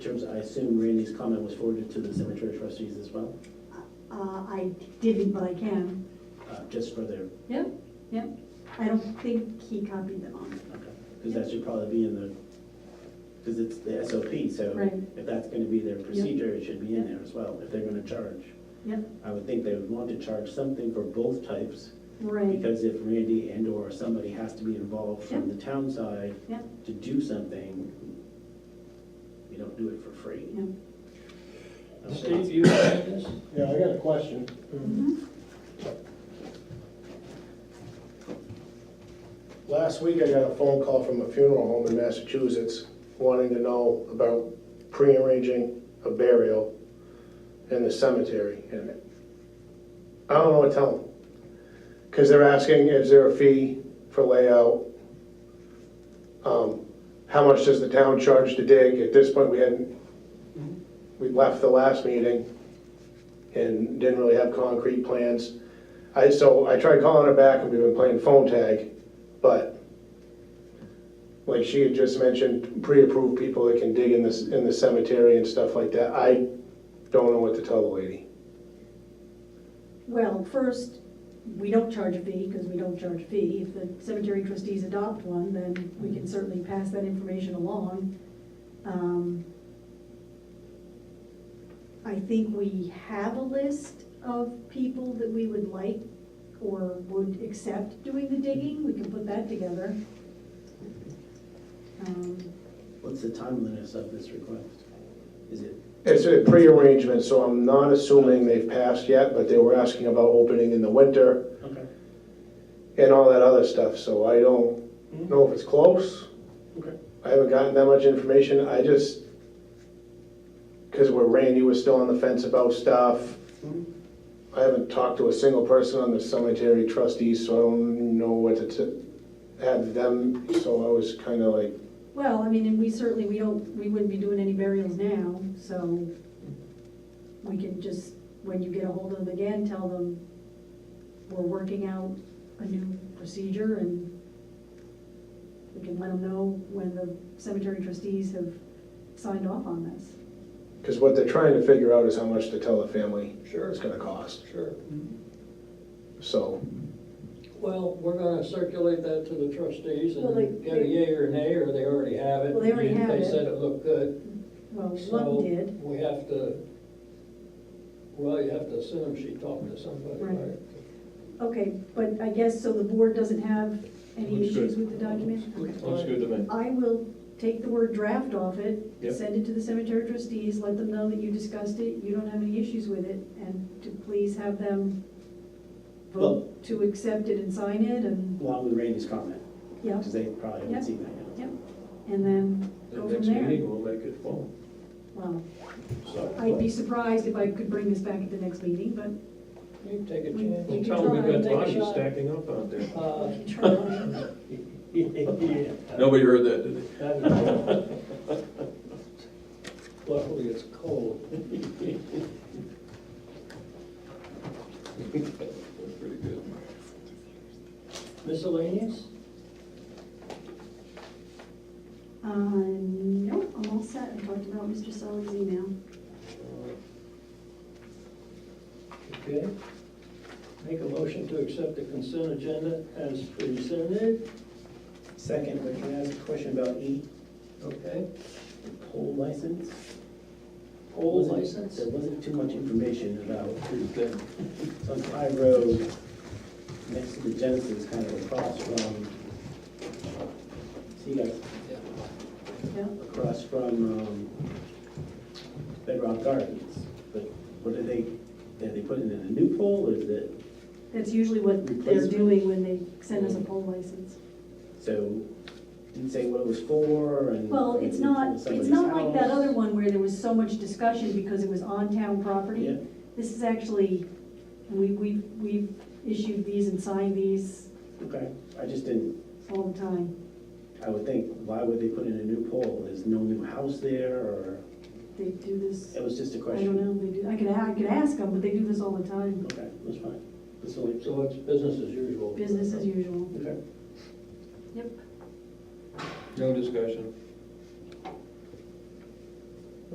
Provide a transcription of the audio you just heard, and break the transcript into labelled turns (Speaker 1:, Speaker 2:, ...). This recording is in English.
Speaker 1: terms, I assume Randy's comment was forwarded to the cemetery trustees as well,
Speaker 2: Uh, I didn't, but I can.
Speaker 1: uh, just for their,
Speaker 2: Yep, yep. I don't think he copied them on.
Speaker 1: okay. Because that should probably be in the, because it's the SOP, so
Speaker 2: Right.
Speaker 1: if that's going to be their procedure, it should be in there as well, if they're going to charge.
Speaker 2: Yep,
Speaker 1: I would think they would want to charge something for both types,
Speaker 2: right,
Speaker 1: because if Randy and/or somebody has to be involved from
Speaker 2: Yeah.
Speaker 1: the town side
Speaker 2: yep,
Speaker 1: to do something, we don't do it for free.
Speaker 2: yep.
Speaker 1: Okay.
Speaker 3: Steve, you have this?
Speaker 4: Yeah, I got a question.
Speaker 2: Mhm.
Speaker 4: Last week, I got a phone call from a funeral home in Massachusetts wanting to know about prearranging a burial in the cemetery. And I don't know what to tell them. Because they're asking, is there a fee for layout? Um, How much does the town charge to dig? At this point, we hadn't, we left the last meeting and didn't really have concrete plans. I, so I tried calling her back and we've been playing phone tag, but like she had just mentioned, pre-approved people that can dig in this, in the cemetery and stuff like that. I don't know what to tell the lady.
Speaker 2: Well, first, we don't charge a fee, because we don't charge a fee. If the cemetery trustees adopt one, then we can certainly pass that information along. Um, I think we have a list of people that we would like or would accept doing the digging, we can put that together. Um,
Speaker 1: What's the timeliness of this request? Is it
Speaker 4: It's a pre-arrangement, so I'm not assuming they've passed yet, but they were asking about opening in the winter
Speaker 1: Okay,
Speaker 4: and all that other stuff, so I
Speaker 3: Hmm?
Speaker 4: don't know if it's close.
Speaker 1: okay.
Speaker 4: I haven't gotten that much information, I just, because where Randy was still on the fence about stuff,
Speaker 1: Hmm?
Speaker 4: I haven't talked to a single person on the cemetery trustees, so I don't know what to t- have them, so I was kind of like,
Speaker 2: Well, I mean, and we certainly, we don't, we wouldn't be doing any burials now, so we can just, when you get a hold of them again, tell them we're working out a new procedure and we can let them know when the cemetery trustees have signed off on this.
Speaker 4: because what they're trying to figure out is how much to tell the family
Speaker 3: Sure.
Speaker 4: it's gonna cost,
Speaker 3: Sure.
Speaker 4: so,
Speaker 3: Well, we're gonna circulate that to the trustees
Speaker 2: Well, they-
Speaker 3: and get a yay or nay, or they already have it.
Speaker 2: Well, they already
Speaker 3: and
Speaker 2: have it.
Speaker 3: They said it looked good.
Speaker 2: Well,
Speaker 3: So
Speaker 2: one did,
Speaker 3: We have to, well, you have to assume she talked to somebody,
Speaker 2: Right.
Speaker 3: right?
Speaker 2: okay, but I guess, so the board doesn't have any issues with the document? Okay.
Speaker 5: Looks good to me.
Speaker 2: I will take the word draft off it,
Speaker 5: Yep.
Speaker 2: send it to the cemetery trustees, let them know that you discussed it, you don't have any issues with it, and to please have them
Speaker 1: Well-
Speaker 2: vote to accept it and sign it, and,
Speaker 1: Along with Randy's comment,
Speaker 2: yeah,
Speaker 1: because they probably
Speaker 2: Yeah.
Speaker 1: haven't seen that yet.
Speaker 2: yeah, and then
Speaker 5: The
Speaker 2: go from
Speaker 5: next meeting,
Speaker 2: there.
Speaker 5: we'll make it formal.
Speaker 2: Well,
Speaker 5: So-
Speaker 2: I'd be surprised if I could bring this back at the next meeting, but
Speaker 3: You take a
Speaker 2: We- we
Speaker 3: chance.
Speaker 2: can
Speaker 5: Tell them we've got
Speaker 2: Take a
Speaker 5: bodies
Speaker 3: shot.
Speaker 5: stacking up out there.
Speaker 3: Uh,
Speaker 2: we can try. All
Speaker 5: Nobody heard that, did they?
Speaker 3: I don't know. Luckily, it's cold.
Speaker 5: That's pretty good.
Speaker 3: Miscellaneous?
Speaker 2: Uh, no, I'm all set, I talked about Mr. Sully's email.
Speaker 3: Okay. Make a motion to accept the consent agenda as presented,
Speaker 1: Second, but can I ask a question about E,
Speaker 3: okay?
Speaker 1: poll license?
Speaker 3: Poll
Speaker 1: Wasn't-
Speaker 3: license?
Speaker 1: There wasn't too much information about,
Speaker 5: Here's the thing.
Speaker 1: it's on High Road, next to the Genesis, kind of across from, see, like,
Speaker 2: Yeah,
Speaker 1: across from um, Bedrock Gardens. But what did they, did they put in a new poll, or is it,
Speaker 2: that's usually what they're
Speaker 1: Replacement?
Speaker 2: doing when they send us a poll license.
Speaker 1: so, didn't say what it was for, and.
Speaker 2: Well, it's not, it's not like that other one where there was so much discussion because it was on town
Speaker 1: Yeah.
Speaker 2: property. This is actually, we, we, we've issued these and signed these
Speaker 1: Okay, I just didn't,
Speaker 2: all the time.
Speaker 1: I would think, why would they put in a new poll? There's no new house there, or,
Speaker 2: They do this,
Speaker 1: it was just a
Speaker 2: I
Speaker 1: question.
Speaker 2: don't know, they do, I could, I could ask them, but they do this all the time,
Speaker 1: Okay, that's fine. That's all I-
Speaker 3: So it's business as usual.
Speaker 2: business as usual.
Speaker 1: Okay.
Speaker 2: Yep.
Speaker 5: No discussion.